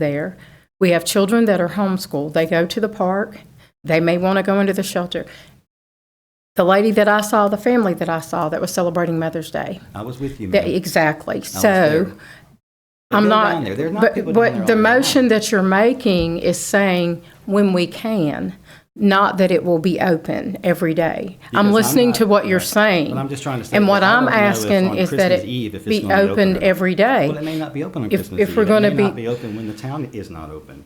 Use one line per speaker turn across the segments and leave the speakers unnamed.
there. We have children that are homeschooled. They go to the park. They may want to go into the shelter. The lady that I saw, the family that I saw that was celebrating Mother's Day,
I was with you,
that-
ma'am.
exactly.
there.
So I'm
They're
not.
down there. There's not
but-
people down there
But the
all the time.
motion that you're making is saying when we can, not that it will be open every day.
Because
I'm
I'm
listening
not-
to what you're
right.
saying.
But I'm just trying to say
And
that
what
I
I'm
don't know if
asking
on
is that
Christmas
it
Eve if
be
it's gonna be open or
open
not.
every day.
Well, it may not be open on
If-
Christmas
if
Eve.
we're gonna
It may
be-
not be open when the town is not open.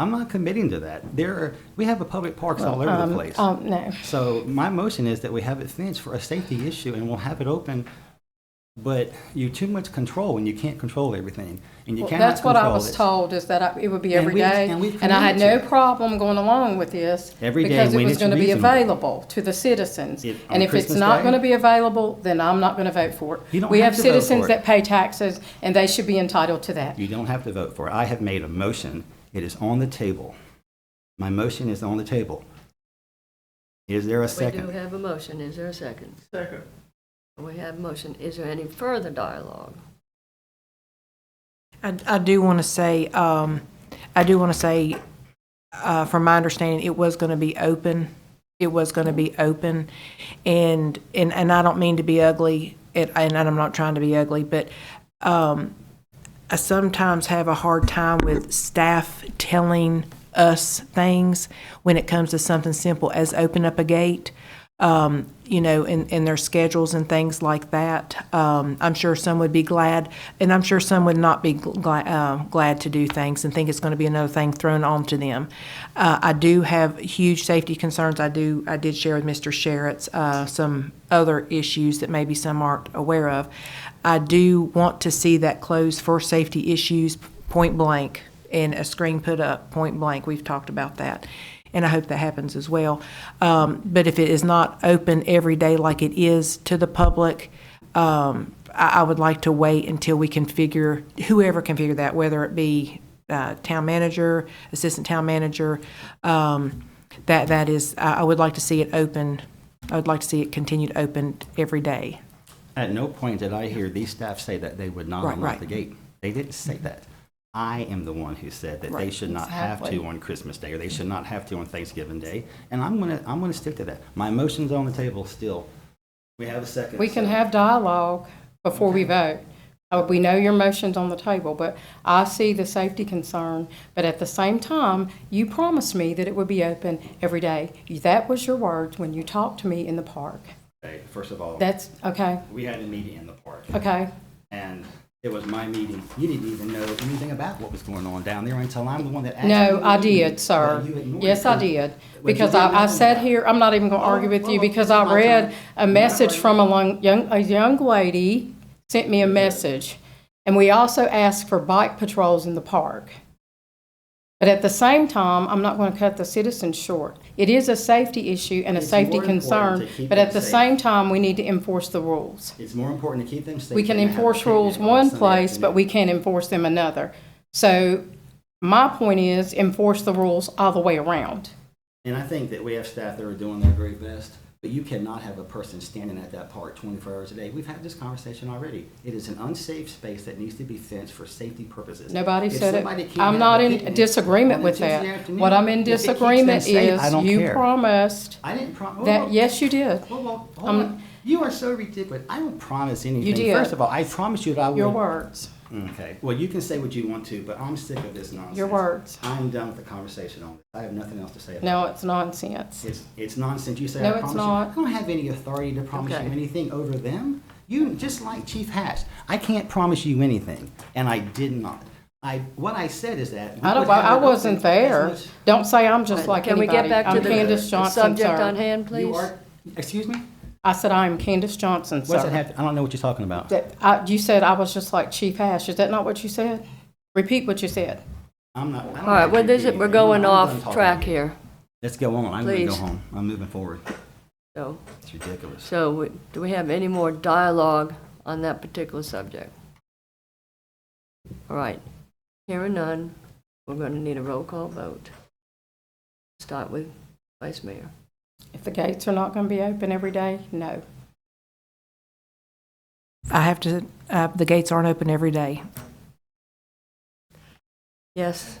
I'm not committing to that. There are, we have a public parks all over the
Um,
place.
Oh, no.
So my motion is that we have it fenced for a safety issue and we'll have it open. But you too much control and you can't control everything and you
Well,
cannot
That's what I
control
was
it.
told, is that I- it would be
And
every
we-
day.
and we
And I had no
committed to it.
problem going along with this.
Every day
Because it
when
was
it's
going to be
reasonable.
available to the citizens.
It- on
And if it's
Christmas
not
Day?
going to be available, then I'm not going to vote for
You
it.
don't
We
have
have
to vote for
citizens
it.
that pay taxes, and they should be entitled to that.
You don't have to vote for it. I have made a motion. It is on the table. My motion is on the table. Is there a
We do
second?
have a motion, is there a second? Second. We have a motion, is there any further dialogue?
I, I do want to say, um, I do want to say, uh, from my understanding, it was going to be open. It was going to be open. And, and, and I don't mean to be ugly, and, and I'm not trying to be ugly, but, um, I sometimes have a hard time with staff telling us things when it comes to something simple as open up a gate, um, you know, and, and their schedules and things like that. Um, I'm sure some would be glad, and I'm sure some would not be glad, uh, glad to do things and think it's going to be another thing thrown onto them. Uh, I do have huge safety concerns. I do, I did share with Mr. Sherritt's, uh, some other issues that maybe some aren't aware of. I do want to see that closed for safety issues, point blank, and a screen put up, point blank. We've talked about that, and I hope that happens as well. Um, but if it is not open every day like it is to the public, um, I, I would like to wait until we can figure, whoever can figure that, whether it be uh, town manager, assistant town manager, um, that, that is, I, I would like to see it open, I would like to see it continued open every day.
At no point did I hear these staff say that they would not
Right,
unlock
right.
the gate. They didn't say that. I am the one who said that they
Right,
should not have to
exactly.
on Christmas Day, or they should not have to on Thanksgiving Day, and I'm gonna, I'm gonna stick to that. My motion's on the table still. We have a second.
We can
so-
have dialogue before we vote. Uh, We know your motion's on the table, but I see the safety concern. But at the same time, you promised me that it would be open every day. That was your words when you talked to me in the park.
Okay, First of all,
That's, okay,
we had a meeting in the park.
okay.
and it was my meeting. You didn't even know anything about what was going on down there until I'm the one that asked.
No,
you.
I did, sir.
Well, you ignored
Yes, I
it.
did.
you
Because
didn't
I, I
know
sat
that. Oh,
here, I'm not even going to argue with you
well,
because
it's
I
my
read
turn.
a message from a long, young, a young lady sent me a message. And we also asked for bike patrols in the park. But at the same time, I'm not going to cut the citizens short. It is a safety issue and a
It's
safety
more important
concern,
to keep
but
them
at the
safe.
same time, we need to enforce the rules.
It's more important to keep them safe.
We can
than to have
enforce
a picnic
rules
on
one
Sunday
place, but
afternoon.
we can't enforce them another. So my point is enforce the rules all the way around.
And I think that we have staff that are doing their very best, but you cannot have a person standing at that park 24 hours a day. We've had this conversation already. It is an unsafe space that needs to be fenced for safety purposes.
Nobody
If
said
somebody
it.
can't
I'm
have
not
a
in
picnic
disagreement
on a
with
Tuesday
that.
afternoon,
What I'm in
if it keeps them
disagreement
safe, I
is
don't
you
care.
promised
I didn't promise.
that, yes, you did.
Hold on, hold
Um,
on. You are so ridiculous. I don't promise anything.
did.
First of all, I promised you that I would.
Your words.
Okay. Well, you can say what you want to, but I'm sick of this nonsense.
Your words.
I'm done with the conversation on this. I have nothing else to say. about
No, it's nonsense.
it. It's, it's nonsense. You say
No,
I
it's
promise
not.
you. I don't have any authority to promise
Okay.
you anything over them. You just like Chief Hatch. I can't promise you anything, and I did not. I what I said is that we
I don't,
would have
I
it
wasn't
open as
there.
much-
Don't say I'm just like
Can we get
anybody.
back to
I'm
the-
Candace
the
Johnson,
subject on
sir.
hand,
You
please?
are. Excuse me.
I said I am Candace Johnson,
What's that
sir.
have? to- I don't know what you're talking about.
That, I, you said I was just like Chief Ash. Is that not what you said? Repeat what you said.
I'm not. I don't
All right, well, this, is- we're going off track
here.
here,
Let's go on. I'm going to go
Please.
home. I'm moving forward.
so,
It's ridiculous.
so we- do we have any more dialogue on that particular subject? All right, hearing none, we're going to need a roll call vote. Start with Vice Mayor.
If the gates are not going to be open every day, no.
I have to, uh, the gates aren't open every day.
Yes.